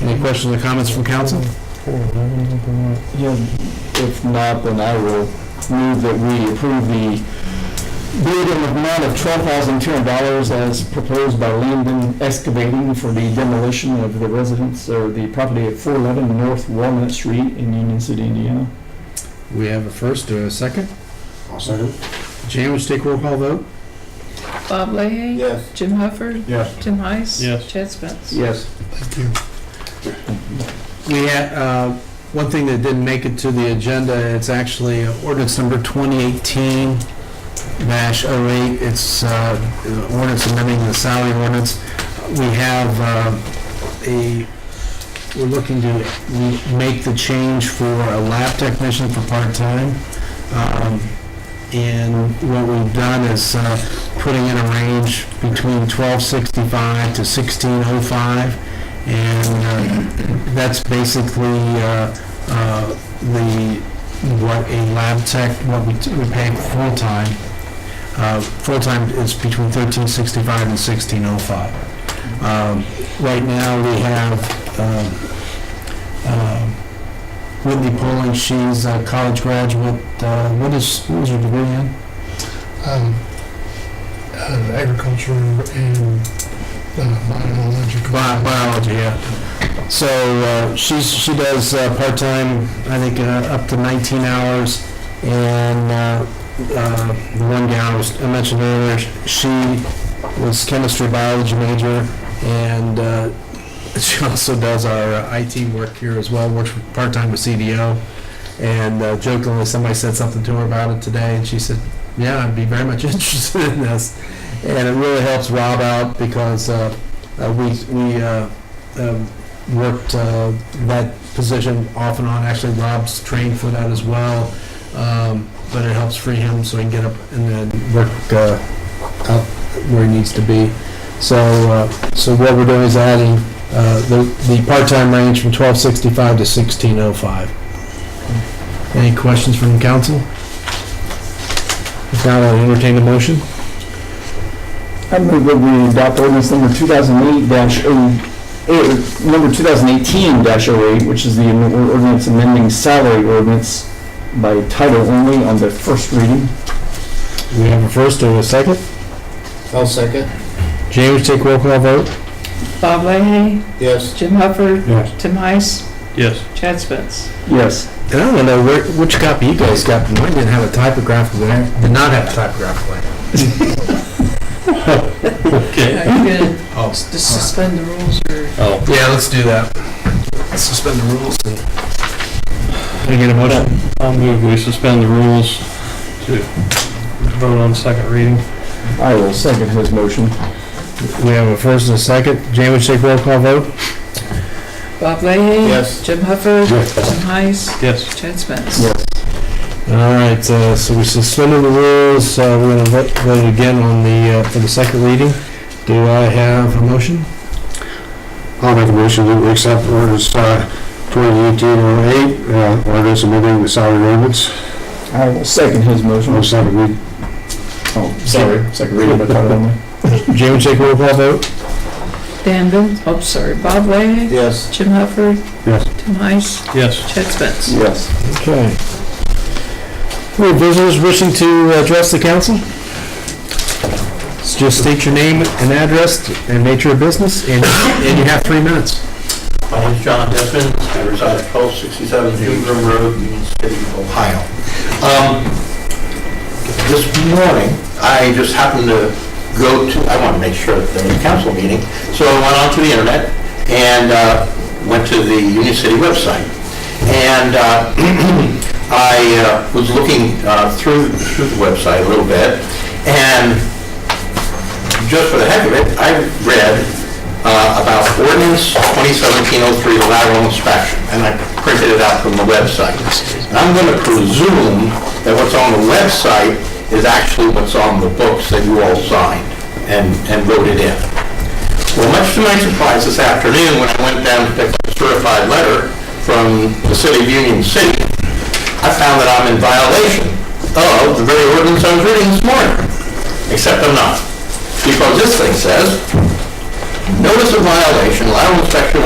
Any questions or comments from council? Yeah, if not, then I will move that we approve the bid in the amount of twelve thousand two hundred dollars as proposed by Landon Excavating for the demolition of the residence or the property at four eleven North Walnut Street in Union City, Indiana. We have a first or a second. I'll second. Jan, would you take roll call vote? Bob Leahy? Yes. Jim Hufford? Yes. Tim Heiss? Yes. Chad Spence? Yes. Thank you. We had, uh, one thing that didn't make it to the agenda, it's actually ordinance number 2018-08. It's uh, ordinance amending the salary ordinance. We have uh, a, we're looking to re- make the change for a lab technician for part-time. Um, And what we've done is uh, putting in a range between 1265 to 1605. And uh, that's basically uh, uh, the, what a lab tech, what we we pay full-time. Uh, Full-time is between 1365 and 1605. Um, Right now, we have um, um, Whitney Poling, she's a college graduate. Uh, What is, what is her degree in? um, uh, agriculture and uh, biological. Bi- Biology, yeah. So uh, she's, she does uh, part-time, I think, uh, up to 19 hours. And uh, uh, the one gal was- I mentioned earlier, she was chemistry biology major. And uh, she also does our uh, IT work here as well, works for- part-time with CDO. And uh, jokingly, somebody said something to her about it today, and she said, yeah, I'd be very much interested in this. And it really helps Rob out because uh, uh, we, we uh, um, worked uh, that position off and on. Actually, Rob's trained for that as well, um, but it helps free him so he can get up and then work uh, out where he needs to be. So, uh, so what we're doing is adding uh, the, the part-time range from 1265 to 1605. Any questions from the council? If not, I'll entertain a motion. I move that we adopt ordinance number two thousand eight dash oh number two thousand eighteen 8 which is the am- ordinance amending salary ordinance by title only on the first reading. We have a first and a second. I'll second. James, take roll call vote. Bob Leahy? Yes. Jim Hufford? Yes. Tim Heiss? Yes. Chad Spence? Yes. And I don't know where, which copy you guys got, but mine didn't have a typographical error. Did not have a typographical error. Are you gonna Oh. s- just suspend the rules or? Oh. Yeah, let's do that. Let's suspend the rules and. Can I get a motion? I'll move we suspend the rules to vote on second reading. I will second his motion. We have a first and a second. Jamie, would you take roll call vote? Bob Leahy? Yes. Jim Hufford? Yes. Tim Heiss? Yes. Chad Spence? Yes. All right, uh, so we suspended the rules, uh, we're gonna vote, vote again on the, uh, for the second reading. Do I have a motion? I'll make a motion that we accept ordinance uh, twenty eighteen oh eight, ordinance amending the salary ordinance. I will second his motion. I'll second read. Oh, sorry, second reading by title only. Jamie, would you take roll call vote? Danville? Oh, sorry. Bob Leahy? Yes. Jim Hufford? Yes. Tim Heiss? Yes. Chad Spence? Yes. Okay. Any visitors wishing to address the council? Just state your name and address and nature of business, and and you have three minutes. My name's John Desmond, I reside at 1267 Ingram Road, Union City, Ohio. Um, This morning, I just happened to go to, I want to make sure that there was a council meeting, so I went onto the internet and uh, went to the Union City website. And uh, I uh, was looking uh, through through the website a little bit, and just for the heck of it, I read uh, about ordinance 2017-03 lateral inspection, and I printed it out from the website. And I'm going to presume that what's on the website is actually what's on the books that you all signed and and voted in. Well, much to my surprise this afternoon, when I went down to pick up a certified letter from the city of Union City, I found that I'm in violation of the very ordinance I was reading this morning, except I'm not. Because this thing says, notice of violation, lateral inspection